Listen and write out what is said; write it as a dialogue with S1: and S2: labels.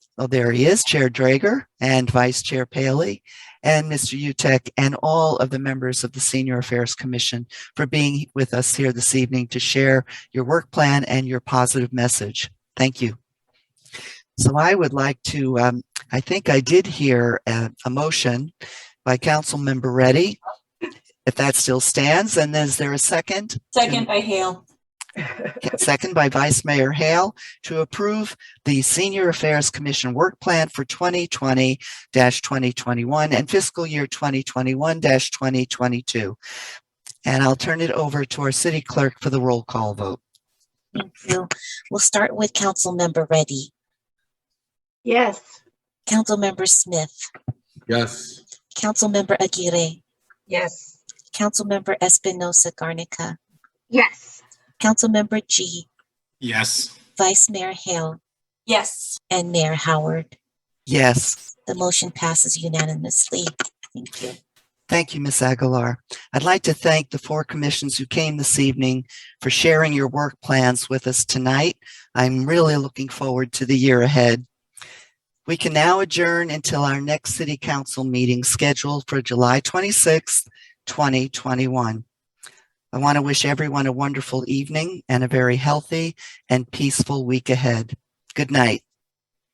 S1: Oh, there he is, Chair Drager and Vice Chair Paley and Mr. Utek and all of the members of the Senior Affairs Commission for being with us here this evening to share your work plan and your positive message. Thank you. So I would like to, um, I think I did hear a, a motion by Councilmember Reddy. If that still stands, and is there a second?
S2: Second by Hale.
S1: Second by Vice Mayor Hale to approve the Senior Affairs Commission Work Plan for 2020-2021 and fiscal year 2021-2022. And I'll turn it over to our city clerk for the roll call vote.
S3: Thank you. We'll start with Councilmember Reddy,
S4: Yes.
S3: Councilmember Smith,
S5: Yes.
S3: Councilmember Aguirre,
S4: Yes.
S3: Councilmember Espinosa Garnica,
S4: Yes.
S3: Councilmember G,
S5: Yes.
S3: Vice Mayor Hale,
S2: Yes.
S3: and Mayor Howard.
S1: Yes.
S3: The motion passes unanimously. Thank you.
S1: Thank you, Ms. Aguilar. I'd like to thank the four commissions who came this evening for sharing your work plans with us tonight. I'm really looking forward to the year ahead. We can now adjourn until our next city council meeting scheduled for July 26, 2021. I want to wish everyone a wonderful evening and a very healthy and peaceful week ahead. Good night.